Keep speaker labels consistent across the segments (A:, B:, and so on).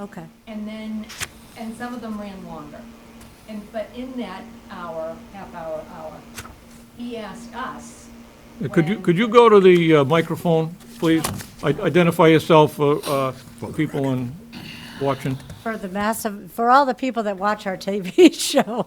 A: Okay.
B: and then, and some of them ran longer. And, but in that hour, half hour, hour, he asked us.
C: Uh, Could you,
B: when-
C: could you go to the uh, microphone, please? I- Identify yourself for uh, for people in watching.
A: For the massive, for all the people that watch our TV show.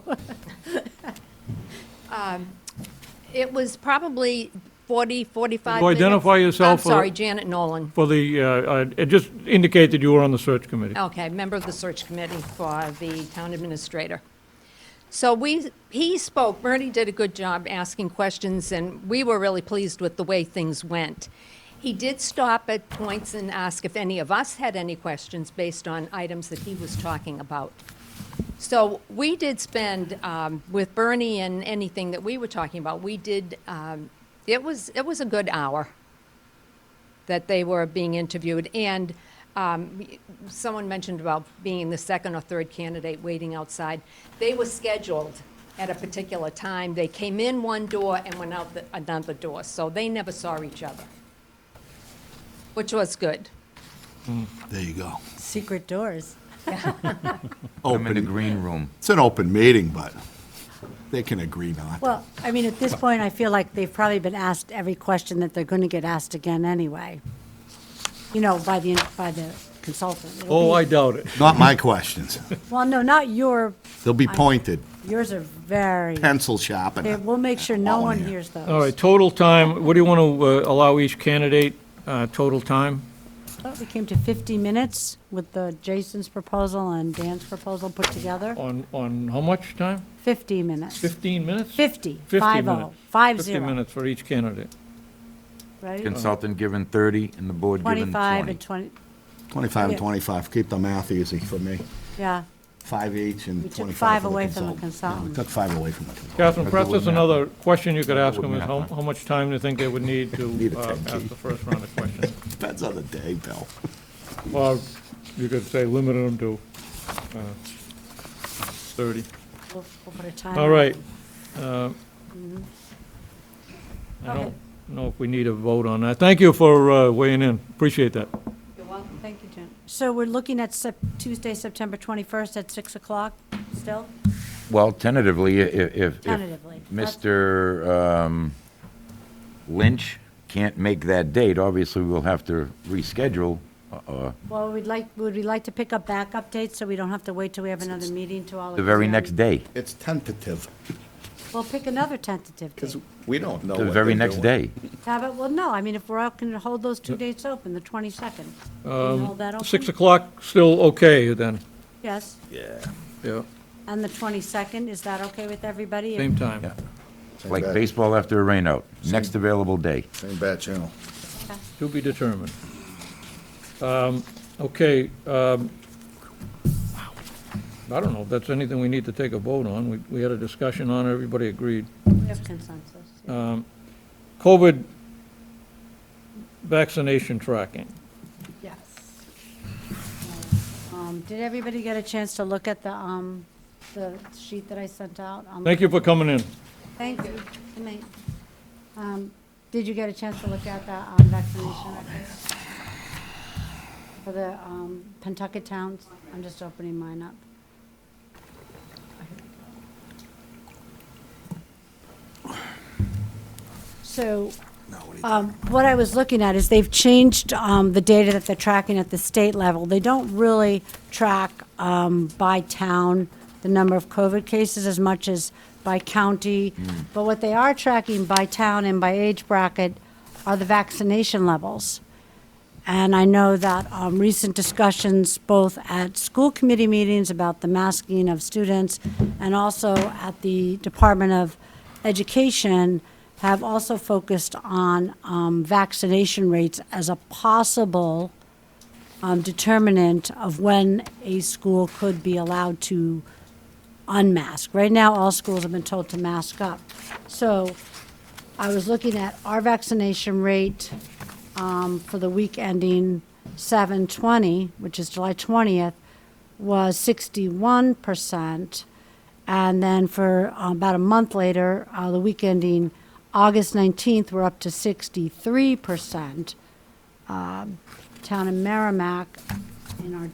B: It was probably 40, 45
C: Could you
B: minutes.
C: identify yourself
B: I'm sorry,
C: for-
B: Janet Nolan.
C: For the, uh, uh, it just indicated you were on the search committee.
B: Okay, member of the search committee for the town administrator. So we, he spoke, Bernie did a good job asking questions, and we were really pleased with the way things went. He did stop at points and ask if any of us had any questions based on items that he was talking about. So we did spend, um, with Bernie and anything that we were talking about, we did, um, it was, it was a good hour that they were being interviewed. And um, someone mentioned about being the second or third candidate waiting outside. They were scheduled at a particular time. They came in one door and went out the, another door, so they never saw each other, which was good.
D: There you go.
A: Secret doors.
E: I'm in the green room.
D: It's an open meeting, but they can agree not.
A: Well, I mean, at this point, I feel like they've probably been asked every question that they're going to get asked again anyway. You know, by the, by the consultant. It'll
C: Oh,
A: be-
C: I doubt it.
D: Not my questions.
C: uh,
A: Well, no, not your,
D: They'll be pointed,
A: yours are very,
D: pencil sharpened.
A: they- we'll make sure no
D: All in
A: one
D: here.
A: hears those.
C: All right, total time, what do you want to allow each candidate uh, total time?
A: Thought We came to 50 minutes with the Jason's proposal and Dan's proposal put together.
C: On, on how much time?
A: 50 minutes.
C: 15 minutes?
A: 50,
C: 50
A: five oh,
C: minutes.
A: five
C: 50
A: zero,
C: minutes for each candidate.
A: right?
E: Consultant given 30 and the board given
A: 25 and
E: 20.
A: 20,
D: 25
A: Yeah.
D: and 25, keep the math easy for me.
A: yeah.
D: Five each
A: We
D: and
A: took
D: 25
A: five
D: for the
A: away from the
D: consultant. Yeah,
A: consultant.
D: We took five away from the consultant.
C: Catherine, perhaps
E: Good
C: that's
E: math.
C: another question you could ask
E: Good
C: them, is how,
E: math.
C: how much time do you think they would need
D: Need
C: to
D: a
C: uh,
D: 10K.
C: ask the first round of questions?
D: Depends on the day, Bill.
C: Or you could say limited them to uh, 30.
A: We'll we'll put a time.
C: All
A: on
C: right.
A: it.
C: uh, I
A: Okay.
C: don't know if we need a vote on that. Thank you for uh, weighing in, appreciate that.
B: You're welcome.
A: Thank you, Jen. So we're looking at Sep- Tuesday, September 21st at 6 o'clock still,
E: Well, tentatively, i- i- if, if
A: tentatively? That's-
E: Mr. um, Lynch can't make that date, obviously we'll have to reschedule. uh,
A: Well, we'd like, would we like to pick up backup dates so we don't have to wait till we have another meeting to all?
E: The very
A: examine?
E: next day,
D: It's tentative,
A: We'll pick another tentative date.
D: we don't know
E: the very next day.
A: Have it, well, no, I mean, if we're out, can hold those two dates open, the 22nd. Can we
C: Um,
A: hold that open?
C: 6 o'clock, still okay then?
A: Yes,
C: Yeah.
A: and the 22nd, is that okay with everybody?
C: Same time?
E: Yeah. Like baseball after a rainout, next available day.
D: Same bad channel.
C: To be determined. Um, Okay, um, I don't know if that's anything we need to take a vote on. We we had a discussion on it, everybody agreed.
A: We have consensus. yeah.
C: Uh. COVID vaccination tracking.
B: Yes.
A: Um, Did everybody get a chance to look at the, um, the sheet that I sent out? Um,
C: Thank you for coming in.
A: Thank you. Good night. Um, Did you get a chance to look at the um, vaccination records? For the um, Pentucket towns? I'm just opening mine up. So um, what I was looking at is they've changed um, the data that they're tracking at the state level. They don't really track um, by town the number of COVID cases as much as by county. But what they are tracking by town and by age bracket are the vaccination levels. And I know that um, recent discussions, both at school committee meetings about the masking of students and also at the Department of Education, have also focused on um, vaccination rates as a possible um, determinant of when a school could be allowed to unmask. Right now, all schools have been told to mask up. So I was looking at our vaccination rate um, for the week ending 7/20, which is July 20th, was 61%. And then for uh, about a month later, uh, the week ending August 19th, we're up to 63%. Um, Town in Merrimack, in our